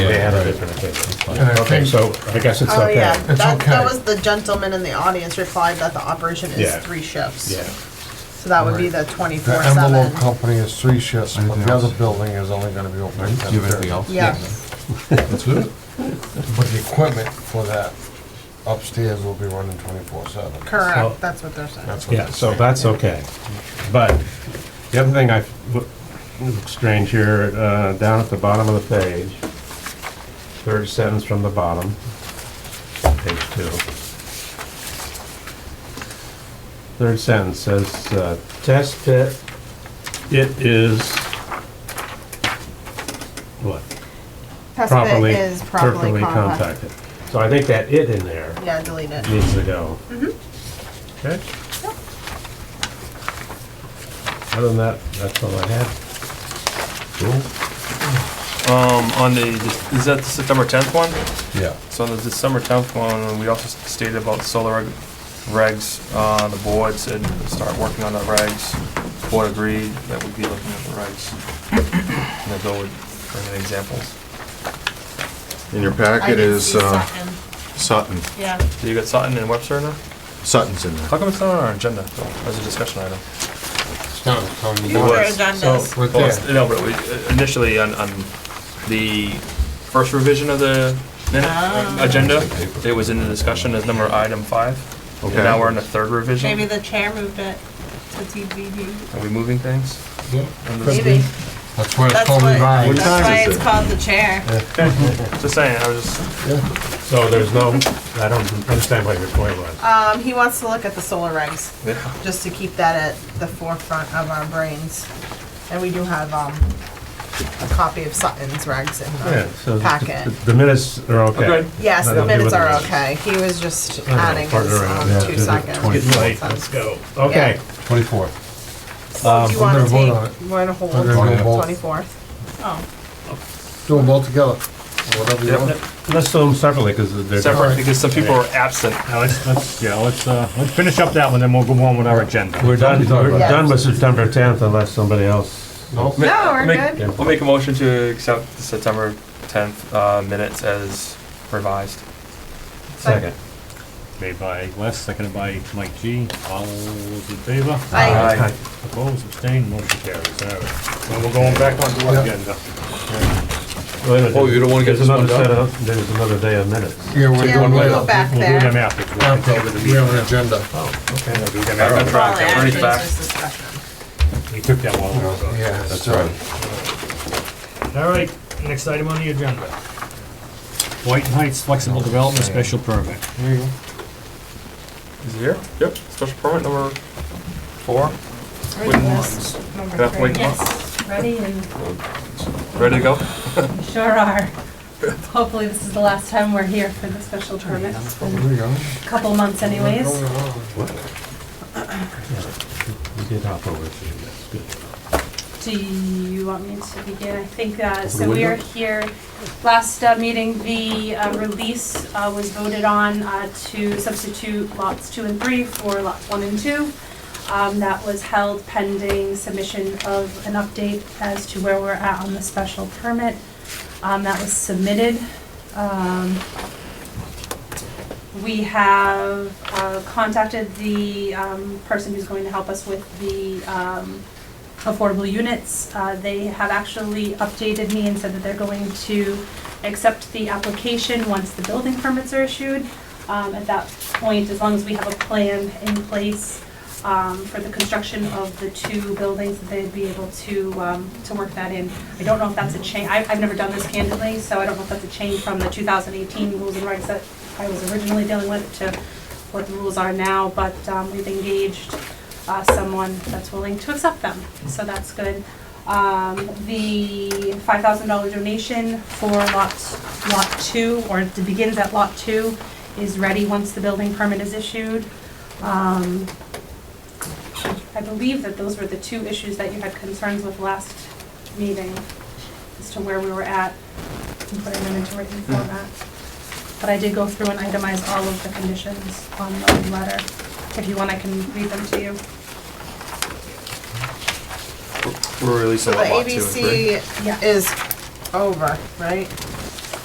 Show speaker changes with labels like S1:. S1: had a
S2: Right.
S1: different opinion.
S3: And I
S2: Uh, Okay,
S3: think-
S2: so I guess it's
S4: Oh,
S2: okay.
S4: yeah,
S2: Yeah,
S3: It's
S4: that, that
S3: okay.
S4: was the gentleman in the audience replied that the operation is
S1: Yeah.
S4: three shifts.
S1: Yeah.
S4: So that would be the
S3: The
S4: twenty-four
S3: envelope
S4: seven.
S3: company is three shifts, but
S5: Anything
S3: the other
S5: else?
S3: building is only gonna be open at
S5: Do you have anything
S3: 10:30.
S5: else?
S4: Yeah,
S5: That's it?
S3: But the equipment for that upstairs will be running twenty-four seven.
S1: So-
S4: correct, that's what they're saying.
S3: That's what
S1: Yeah,
S3: they
S1: so
S3: say.
S1: that's okay. But the other thing I, f- look- look strange here, uh, down at the bottom of the page, third sentence from the bottom, page two. Third sentence says, uh, test pit, it is, what?
S4: Test pit
S1: Properly,
S4: is properly compacted.
S1: contacted. So I think that it in there
S4: Yeah, delete it.
S1: needs to go.
S6: Mm-hmm.
S1: Okay? Other than that, that's all I have.
S7: Um, on the, is that the September tenth one?
S3: Yeah.
S7: So on the December tenth one, we also stated about solar reg- regs, uh, the board said to start working on the regs. Board agreed that we'd be looking at the regs. And then Bill would bring in examples.
S8: In your
S4: I
S8: packet
S4: did
S8: is
S4: see
S8: uh,
S4: Sutton.
S8: Sutton.
S4: Yeah,
S7: So you got Sutton and Webster now?
S8: Sutton's in there.
S7: How come it's not on our agenda though, as a discussion item?
S3: It's not telling you
S4: future
S3: what-
S7: was.
S4: agendas.
S3: Right
S7: Well,
S3: there.
S7: it's- no, but we- initially on, on the first revision of the minute- agenda, it was in the discussion as number item five. And
S8: Okay.
S7: now we're in the third revision.
S4: Maybe the chair moved it to TBD.
S7: Are we moving things?
S3: Yeah,
S7: On the-
S4: Maybe,
S3: That's why it's
S4: that's
S3: called
S4: what,
S3: revised.
S4: that's
S8: time
S4: why
S8: is
S4: it's
S8: it?
S4: called the chair.
S7: Just saying, I was just,
S1: So there's no, I don't understand what your point was.
S4: Um, he wants to look at the solar regs,
S7: yeah,
S4: just to keep that at the forefront of our brains. And we do have, um, a copy of Sutton's regs in
S1: Yeah, so
S4: the
S1: the-
S4: packet.
S1: The minutes are okay.
S7: Okay.
S4: Yes,
S1: Nothing to
S4: the
S1: do
S4: minutes
S1: with
S4: are
S1: this.
S4: okay. He was just
S1: I don't know,
S4: adding
S1: partner
S4: his,
S1: around.
S4: um,
S1: Yeah,
S4: two
S1: do the
S4: seconds.
S1: Getting late, let's go. Okay.
S3: Twenty-fourth.
S4: So Do you
S3: we're
S4: wanna
S3: gonna vote on
S4: take,
S3: it.
S4: we're gonna hold
S3: We're gonna
S4: till
S3: do
S4: the
S3: both.
S4: twenty-fourth? Oh,
S3: Do them both together, whatever you want.
S1: Let's do them separately, because they're.
S7: separate, because some people are absent.
S6: Now, let's, let's, yeah, let's, uh, let's finish up that one, then we'll go on with our agenda.
S1: We're done, we're
S4: Yeah.
S1: done with September tenth unless somebody else.
S3: Nope.
S4: no, we're
S7: make-
S4: good.
S7: We'll make a motion to accept the September tenth, uh, minutes as revised.
S1: Second.
S6: Made by Wes, seconded by Mike G. All those in favor?
S4: I,
S7: Aye.
S6: Opposed, abstained, motion carries. All right. Now we're going back on to our agenda.
S5: Oh, you don't wanna get
S1: There's
S5: this one
S1: another set
S5: done?
S1: of- There's another day of minutes.
S3: Yeah, we're
S4: yeah, we'll
S3: doing
S4: go
S3: later.
S4: back
S6: We'll do them
S4: there.
S6: after. We'll
S3: After, we have an agenda,
S6: do them
S7: I've been
S6: after.
S7: trying to get
S4: Probably
S7: Ernie's
S4: after
S7: back.
S4: this discussion.
S6: We took that while we were gone.
S3: yeah, so,
S6: All right, next item on the agenda. White Heights Flexible Development Special Permit.
S7: Is it here? Yep, special permit number four,
S9: Ready,
S7: Wooden
S9: number
S7: Can I
S9: three.
S7: wait a
S9: Yes, ready and
S7: ready to go?
S9: you sure are. Hopefully, this is the last time we're here for the special permit. It's been
S3: there you go.
S9: a Couple months anyways.
S1: We did hop over to you, that's good.
S9: Do you want me to begin? I think, uh, so we are here, last uh, meeting, the uh, release uh, was voted on uh, to substitute lots two and three for lots one and two. Um, That was held pending submission of an update as to where we're at on the special permit. Um, That was submitted. Um, we have uh, contacted the um, person who's going to help us with the um, affordable units. Uh, They have actually updated me and said that they're going to accept the application once the building permits are issued. Um, At that point, as long as we have a plan in place um, for the construction of the two buildings, that they'd be able to, um, to work that in. I don't know if that's a change, I've, I've never done this candidly, so I don't know if that's a change from the 2018 rules and regs that I was originally dealing with to what the rules are now, but um, we've engaged uh, someone that's willing to accept them, so that's good. Um, The $5,000 donation for lot, lot two, or it begins at lot two, is ready once the building permit is issued. Um, I believe that those were the two issues that you had concerns with last meeting, as to where we were at, and putting them into written format. But I did go through and itemize all of the conditions on the letter. If you want, I can read them to you.
S7: We're releasing
S4: So the
S7: lot two and three.
S4: ABC
S9: Yeah.
S4: is over, right?